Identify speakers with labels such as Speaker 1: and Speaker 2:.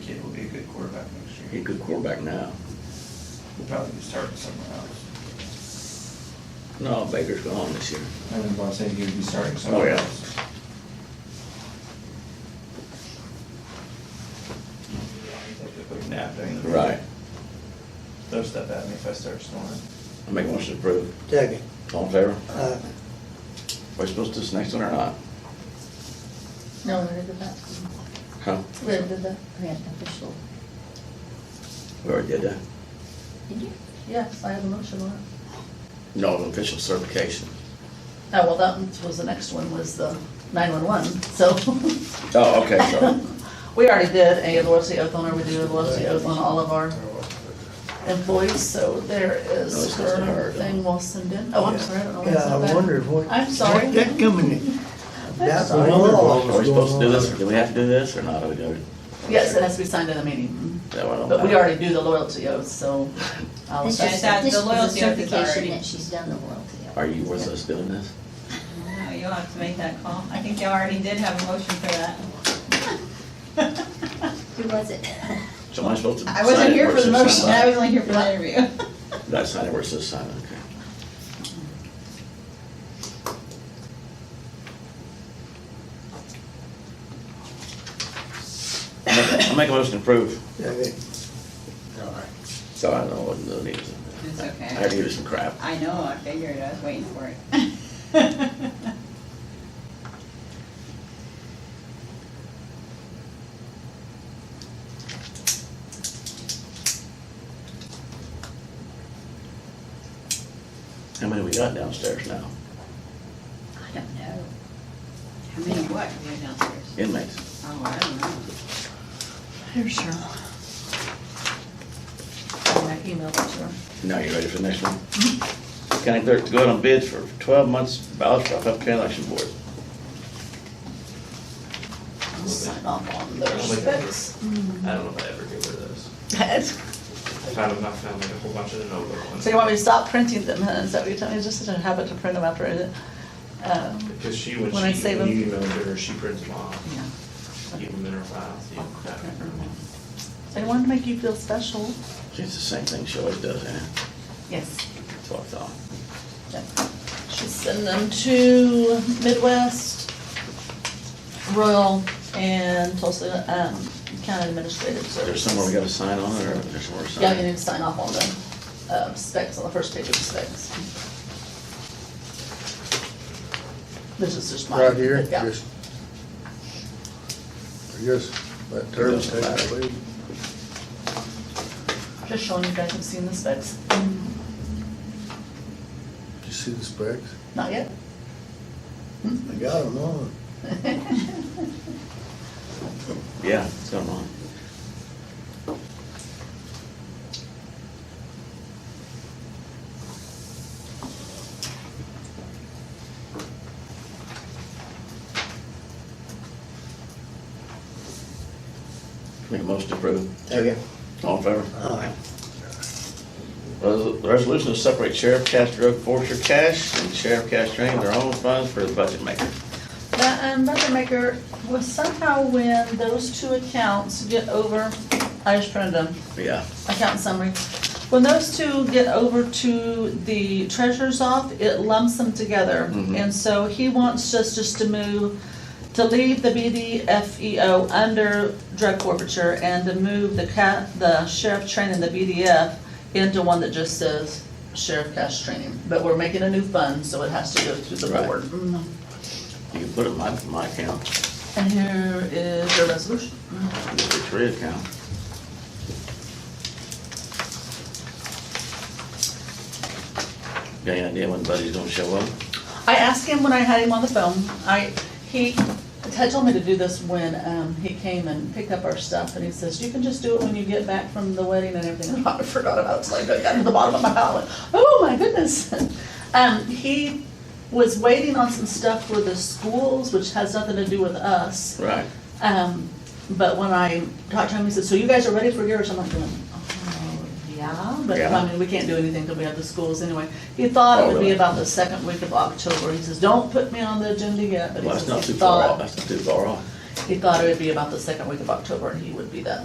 Speaker 1: He's a good quarterback now.
Speaker 2: We'll probably be starting somewhere else.
Speaker 1: No, Baker's gone this year.
Speaker 2: And then I'm saying he'd be starting somewhere
Speaker 1: yeah.
Speaker 2: else. Like napping.
Speaker 1: Right.
Speaker 2: They'll step at me if I start snoring.
Speaker 1: I make a motion to approve.
Speaker 3: Second.
Speaker 1: All in favor?
Speaker 3: Uh,
Speaker 1: Are we supposed to do this next one or not?
Speaker 4: No, we're the back.
Speaker 1: Huh?
Speaker 4: We're the, the grant official.
Speaker 1: We already did that.
Speaker 4: Did you? Yes, I have a motion on it.
Speaker 1: No, official certification.
Speaker 4: Oh, well, that one was the next one, was the nine-one-one, so.
Speaker 1: Oh, okay, sorry.
Speaker 4: We already did a loyalty oath on her, we do a loyalty oath on all of our employees, so there
Speaker 1: No,
Speaker 4: is
Speaker 1: it's just
Speaker 4: her
Speaker 1: her.
Speaker 4: thing we'll send in. Oh, I'm sorry, I don't know why it's
Speaker 3: Yeah,
Speaker 4: not
Speaker 3: I
Speaker 4: that.
Speaker 3: wonder what.
Speaker 4: I'm sorry.
Speaker 3: what That coming in. That's
Speaker 4: sorry.
Speaker 1: Are we supposed to do this, or do we have to do this, or not? Are we doing?
Speaker 4: Yes, it has to be signed in the meeting,
Speaker 1: That one I don't
Speaker 4: but we
Speaker 1: know.
Speaker 4: already do the loyalty oath, so. I'll
Speaker 5: This
Speaker 4: just-
Speaker 5: is, that-
Speaker 6: This
Speaker 5: the
Speaker 6: is
Speaker 5: loyalty oath is
Speaker 6: certification
Speaker 5: already.
Speaker 6: that she's done the loyalty oath.
Speaker 1: Are you worth us doing this?
Speaker 5: No, you'll have to make that call. I think you already did have a motion for that.
Speaker 6: Who was it?
Speaker 1: So am I supposed to?
Speaker 5: I wasn't here for the motion, I was
Speaker 1: That's
Speaker 5: only here for the interview.
Speaker 1: Did I sign it where it says sign? Okay. I make- I make a motion to approve.
Speaker 3: Second.
Speaker 1: So I don't know what the news is.
Speaker 5: It's okay.
Speaker 1: I heard you was some crap.
Speaker 5: I know, I figured, I was waiting for it.
Speaker 1: How many we got downstairs now?
Speaker 5: I don't know. How many what, you know, downstairs?
Speaker 1: Inmates.
Speaker 5: Oh, I don't know.
Speaker 4: Here's Cheryl. I emailed it to her.
Speaker 1: Now you ready for the next one? County clerk to go out on bids for twelve months ballot for Huffman Election Board.
Speaker 4: I'll Sign off on those
Speaker 2: I'll make
Speaker 4: specs.
Speaker 2: I don't know if I ever get rid of those. If I have enough, I'll make a whole bunch of the notebook ones.
Speaker 4: So you want me to stop printing them, huh? Is that what you're telling me? It's just a habit to print them after I, uh,
Speaker 2: Because she, when
Speaker 4: When I
Speaker 2: she,
Speaker 4: save
Speaker 2: when
Speaker 4: them.
Speaker 2: you emailed her, she prints them off,
Speaker 4: yeah.
Speaker 2: keep them in her files. you
Speaker 4: I'll
Speaker 2: know,
Speaker 4: print
Speaker 2: that-
Speaker 4: them out. I wanted to make you feel special.
Speaker 1: See, It's the same thing she always does, ain't it?
Speaker 4: Yes.
Speaker 1: That's what I thought.
Speaker 4: Should send them to Midwest, Royal, and Tulsa, um, County Administrative Service.
Speaker 1: There's somewhere we gotta sign on it, or there's somewhere to sign?
Speaker 4: Yeah, you need to sign off on the, uh, specs, on the first page of the specs. This is just my.
Speaker 7: Right here,
Speaker 4: Yeah.
Speaker 7: just. I guess that term
Speaker 1: Doesn't matter.
Speaker 7: takes away.
Speaker 4: Just showing you guys have seen the specs. Mm-hmm.
Speaker 7: Did you see the specs?
Speaker 4: Not yet.
Speaker 7: I got them on.
Speaker 1: Yeah, it's going on. Make a motion to approve.
Speaker 3: Second.
Speaker 1: All in favor?
Speaker 3: Aye.
Speaker 1: Res- Resolution to separate sheriff cash drug forfeiture cash and sheriff cash drain their own funds for the budget maker.
Speaker 4: That, um, Budget Maker, was somehow when those two accounts get over, I just printed them,
Speaker 1: Yeah,
Speaker 4: account summary. When those two get over to the treasurer's off, it lumps them together.
Speaker 1: Mhm.
Speaker 4: And so he wants us just to move, to leave the BDFEO E under drug forfeiture and to move the ca, the sheriff training, the BDF, into one that just says sheriff cash training. But we're making a new fund, so it has to go through the
Speaker 1: Right.
Speaker 4: board.
Speaker 1: you can put it in my, my account,
Speaker 4: And here is your resolution.
Speaker 1: your three account. Got any idea when Buddy's gonna show up?
Speaker 4: I asked him when I had him on the phone, I, he had told me to do this when, um, he came and picked up our stuff, and he says, you can just do it when you get back from the wedding and everything, I forgot about it, so I got to the bottom of my pile, and, oh my goodness. Um, he was waiting on some stuff for the schools, which has nothing to do with us,
Speaker 1: Right.
Speaker 4: um, but when I talked to him, he said, so you guys are ready for yours? I'm like, going, oh, yeah, but I
Speaker 1: Yeah.
Speaker 4: mean, we can't do anything till we have the schools anyway. He
Speaker 1: Oh,
Speaker 4: thought it would be
Speaker 1: really?
Speaker 4: about the second week of October. He says, don't put me on the agenda yet, but
Speaker 1: Well,
Speaker 4: he
Speaker 1: that's not
Speaker 4: says he
Speaker 1: too far off,
Speaker 4: thought,
Speaker 1: that's not too far off.
Speaker 4: he thought it would be about the second week of October and he would be that